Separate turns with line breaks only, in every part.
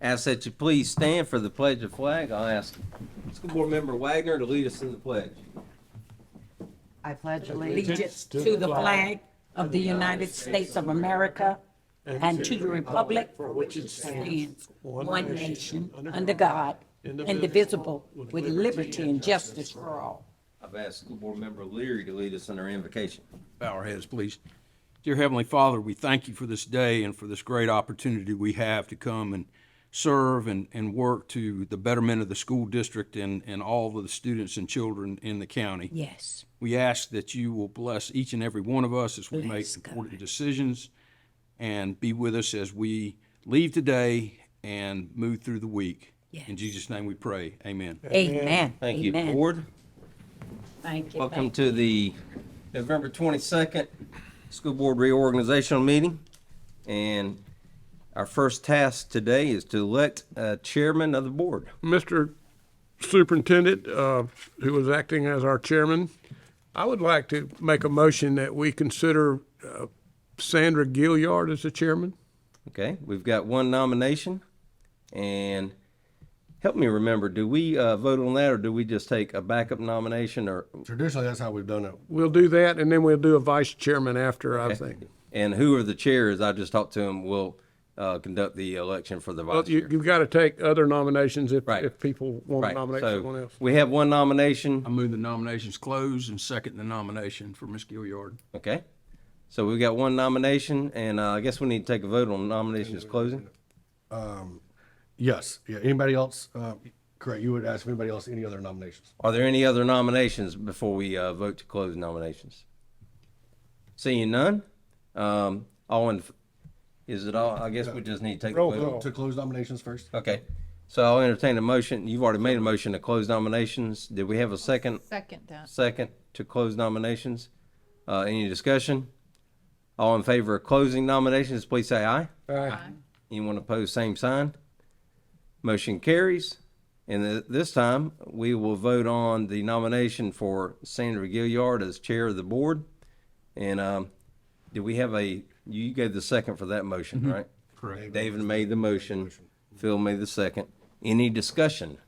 Ask that you please stand for the pledge of flag. I'll ask School Board Member Wagner to lead us in the pledge.
I pledge allegiance
allegiance to the flag of the United States of America and to the republic for which it stands, one nation, under God, indivisible, with liberty and justice for all.
I've asked School Board Member Leary to lead us in our invocation.
bow our heads, please. Dear Heavenly Father, we thank you for this day and for this great opportunity we have to come and serve and, and work to the betterment of the school district and, and all of the students and children in the county.
Yes.
We ask that you will bless each and every one of us as we
Bless
make
God.
important decisions and be with us as we leave today and move through the week. In
Yes.
Jesus' name we pray. Amen.
Amen.
Thank you,
Amen.
Board.
Thank you.
Welcome to the November 22nd School Board Reorganizational Meeting. And our first task today is to elect a chairman of the board.
Mr. Superintendent, uh, who was acting as our chairman, I would like to make a motion that we consider uh, Sandra Gilliard as the chairman.
Okay, we've got one nomination. And help me remember, do we uh, vote on that or do we just take a backup nomination or,
Traditionally, that's how we've done it.
We'll do that, and then we'll do a vice chairman after, I think.
and who are the chairs? I just talked to him, will uh, conduct the election for the vice
But you,
chair.
you've got to take other nominations if,
Right.
if people want to
Right,
nominate
so
someone else.
We have one nomination.
I move the nominations close and second the nomination for Ms. Gilliard.
Okay. So we've got one nomination, and uh, I guess we need to take a vote on nominations closing.
Yes, yeah, anybody else, uh, correct, you would ask if anybody else any other nominations.
Are there any other nominations before we uh, vote to close nominations? Seeing none, um, all in, is it all, I guess we just need to take a
Roll
vote.
call.
To close nominations first?
Okay, so I'll entertain a motion, you've already made a motion to close nominations, did we have a second,
Second that.
second to close nominations? Uh, any discussion? All in favor of closing nominations, please say aye.
Aye.
Anyone opposed, same sign. Motion carries. And th- this time, we will vote on the nomination for Sandra Gilliard as chair of the board. And um, do we have a, you gave the second for that motion, right? Correct. David made the motion. Phil made the second. Any discussion?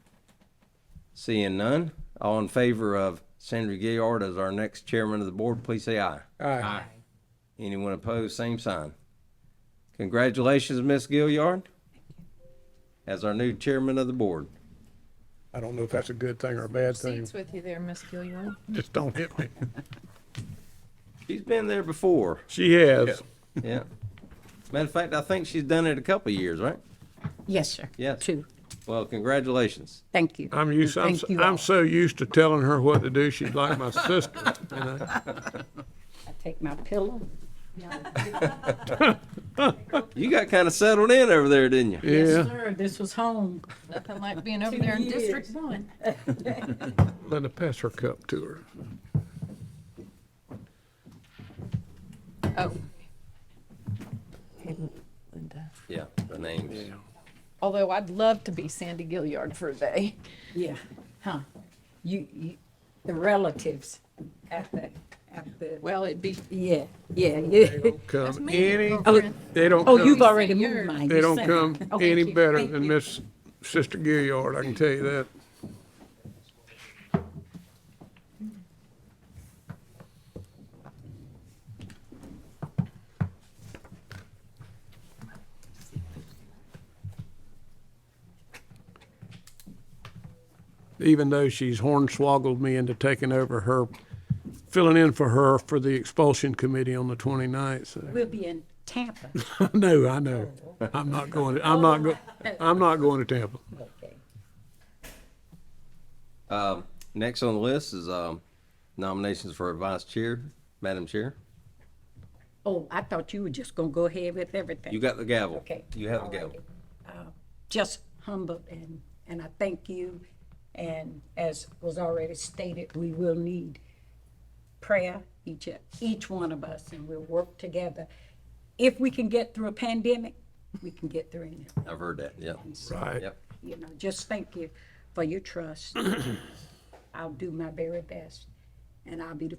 Seeing none, all in favor of Sandra Gilliard as our next chairman of the board, please say aye.
Aye.
Anyone opposed, same sign. Congratulations, Ms. Gilliard, as our new chairman of the board.
I don't know if that's a good thing or a bad thing.
Seats with you there, Miss Gilliard.
Just don't hit me.
She's been there before,
She has.
yeah. Matter of fact, I think she's done it a couple of years, right?
Yes, sir.
Yes.
Two.
Well, congratulations.
Thank you.
I'm used, I'm,
Thank you all.
I'm so used to telling her what to do. She's like my sister. you know?
I Take my pillow.
You got kind of settled in over there, didn't you?
Yes,
Yeah,
sir. This was home.
Nothing like being over there in District
years.
One.
let her pass her cup to her.
Oh,
Yeah, the names.
although I'd love to be Sandy Gilliard for a day.
Yeah, huh. You, you, the relatives at the, at the,
Well, it'd be.
yeah, yeah, yeah.
Come
me,
any,
girlfriend.
they don't
Oh, you've
come,
already moved mine.
they
You
don't
sent
come
mine. Okay,
any
thank
better
you.
than Miss Sister Gilliard, I can tell you that. Even though she's hornswoggled me into taking over her, filling in for her for the expulsion committee on the 29th. so.
We'll be in Tampa.
No, I know. I'm not going, to I'm not, go- I'm not going to Tampa.
Okay.
Um, Next on the list is um, nominations for vice chair, Madam Chair.
Oh, I thought you were just gonna go ahead with everything.
You got the gavel.
Okay.
You have
All
the gavel.
righty. Uh, Just humble and, and I thank you. And as was already stated, we will need prayer, each, each one of us, and we'll work together. If we can get through a pandemic, we can get through anything.
I've heard that, yeah.
Right.
Yep.
you know, just thank you for your trust. I'll do my very best, and I'll be the